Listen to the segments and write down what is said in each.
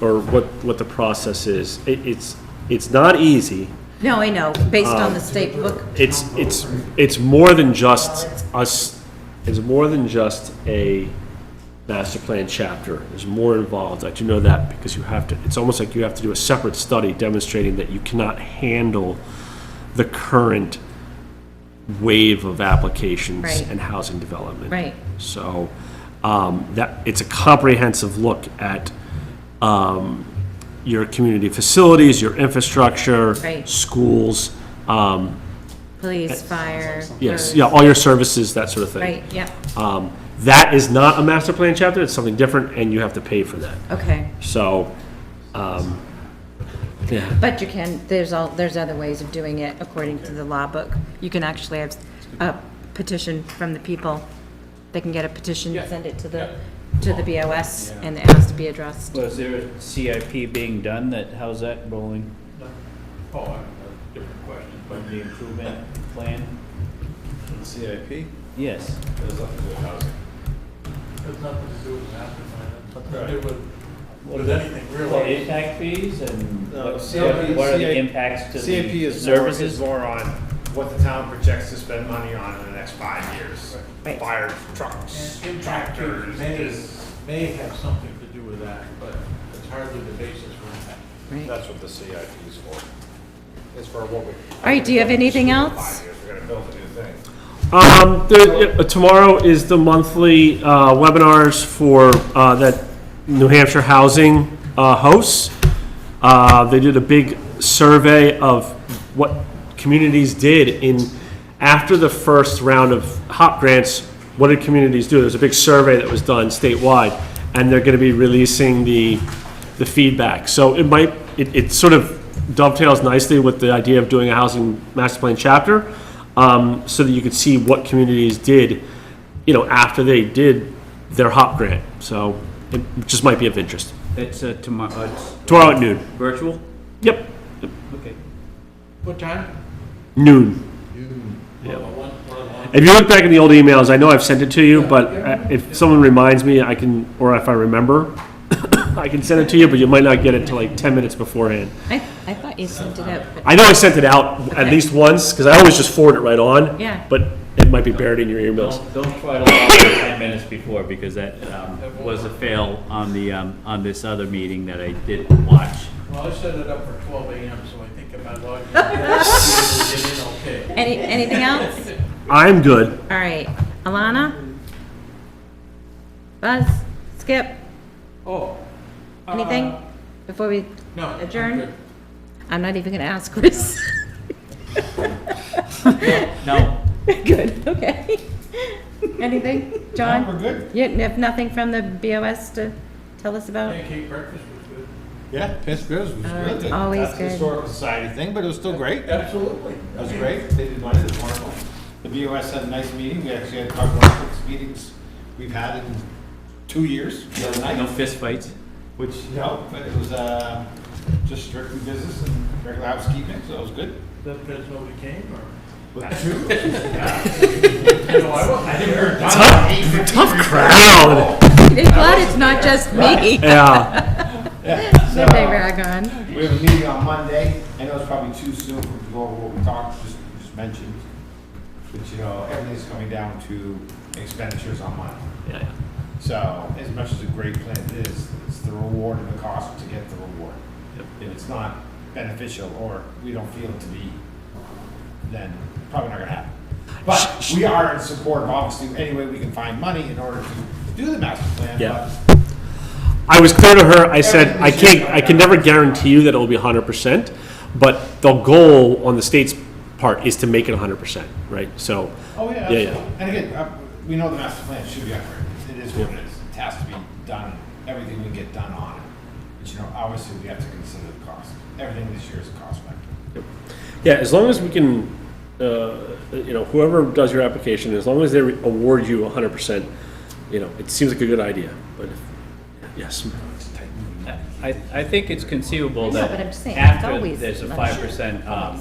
or what, what the process is. It, it's, it's not easy. No, I know, based on Um, the state book. It's, it's, it's more than just us, it's more than just a master plan chapter. There's more involved. I do know that because you have to, it's almost like you have to do a separate study demonstrating that you cannot handle the current wave of applications Right. and housing development. Right. So, um, that, it's a comprehensive look at, um, your community facilities, your infrastructure. Right. Schools, um, Police, fire. yes, roads. yeah, all your services, that sort of thing. Right, yeah, Um, that is not a master plan chapter, it's something different, and you have to pay for that. okay. So, um, yeah, But you can, there's all, there's other ways of doing it according to the law book. You can actually have a petition from the people. They can get a petition, send it to the, to the BOS, and it has to be addressed. Was there a CIP being done that, how's that rolling? Oh, I have a different question, but The improvement plan? the CIP Yes. has nothing to do with housing. has nothing to do with master plan, it's nothing to do with, with anything Well, really. impact fees and No, what CIP what are the CIP impacts to CIP the is more, is services? more on what the town projects to spend money on in the next five years. Right. Fire trucks, And impact fees tractors, may, this. may have something to do with that, but it's hardly the basis for impact. Right. That's what the CIP is for. It's for what we. All right, do you have anything else? We're gonna build a new thing. um, there- yeah, tomorrow is the monthly, uh, webinars for, uh, that New Hampshire Housing, uh, hosts. Uh, they did a big survey of what communities did in, after the first round of HOP grants, what did communities do? There's a big survey that was done statewide, and they're gonna be releasing the, the feedback. So it might, it, it sort of dovetails nicely with the idea of doing a housing master plan chapter, um, so that you could see what communities did, you know, after they did their HOP grant. So it just might be of interest. It's uh, tomorrow, uh, it's Tomorrow at noon. virtual? Yep, Okay. What time? noon. Well, one- one of one. If you look back in the old emails, I know I've sent it to you, but I- if someone reminds me, I can, or if I remember, I can send it to you, but you might not get it till like 10 minutes beforehand. I, I thought you sent it out, but, I know I sent it out at Okay. least once, because I always just forward it right on. Yeah. But it might be buried in your emails. Oh. Don't, don't try to log in ten minutes before, because that, um, was a fail on the, um, on this other meeting that I didn't watch. Well, I set it up for twelve AM, so I think if I log in, I'll be able to get in okay. any, anything else? I'm good. All right, Alana? Buzz? Skip? Oh. uh, Anything? Before we No. I'm adjourn? good. I'm not even gonna ask, Chris. No, Good, okay. Anything, John? We're good. You have nothing from the BOS to tell us about? Pancake breakfast was good. Yeah, Piss Bears was Uh, really good. always That's good. a historical society thing, but it was still great. That Absolutely. was great. They did one, it was wonderful. The BOS had a nice meeting. We actually had probably one of the six meetings we've had in two years, the other no night, fistfights. which helped, but it was, uh, just strictly business and regular housekeeping, so it was good. That, that's nobody came, or? No, I wasn't. I think we were done. Tough crowd. It's Glad it's not just me Yeah. Yeah, that they rag on. We have a meeting on Monday. I know it's probably too soon to go over what we talked, just, just mentioned. But, you know, everything's coming down to expenditures on money. Yeah, yeah. So as much as a great plan is, it's the reward and the cost to get the reward. If it's not beneficial or we don't feel it to be, then probably not gonna happen. But we are in support of obviously any way we can find money in order to do the master plan. Yeah. I was clear to her, I said, I can't, I can never guarantee you that it'll be hundred percent, but the goal on the state's part is to make it hundred percent, right? So. but- Oh, yeah, Yeah, yeah. absolutely. And again, uh, we know the master plan should be upgraded. It is what it is. It has to be done, everything we get done on it. But you know, obviously we have to consider the cost. Everything this year is a cost factor. Yeah, as long as we can, uh, you know, whoever does your application, as long as they award you hundred percent, you know, it seems like a good idea, but, if- yes. I, I think it's conceivable No, but I'm just that saying, it's after always there's a not five sure. percent um,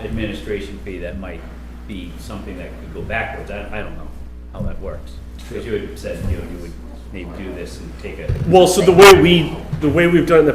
administration fee, that might be something that could go backwards. I, I don't know how that works. Because you had said, you know, you would they do this and take a Well, so the way we, the way we've done it in the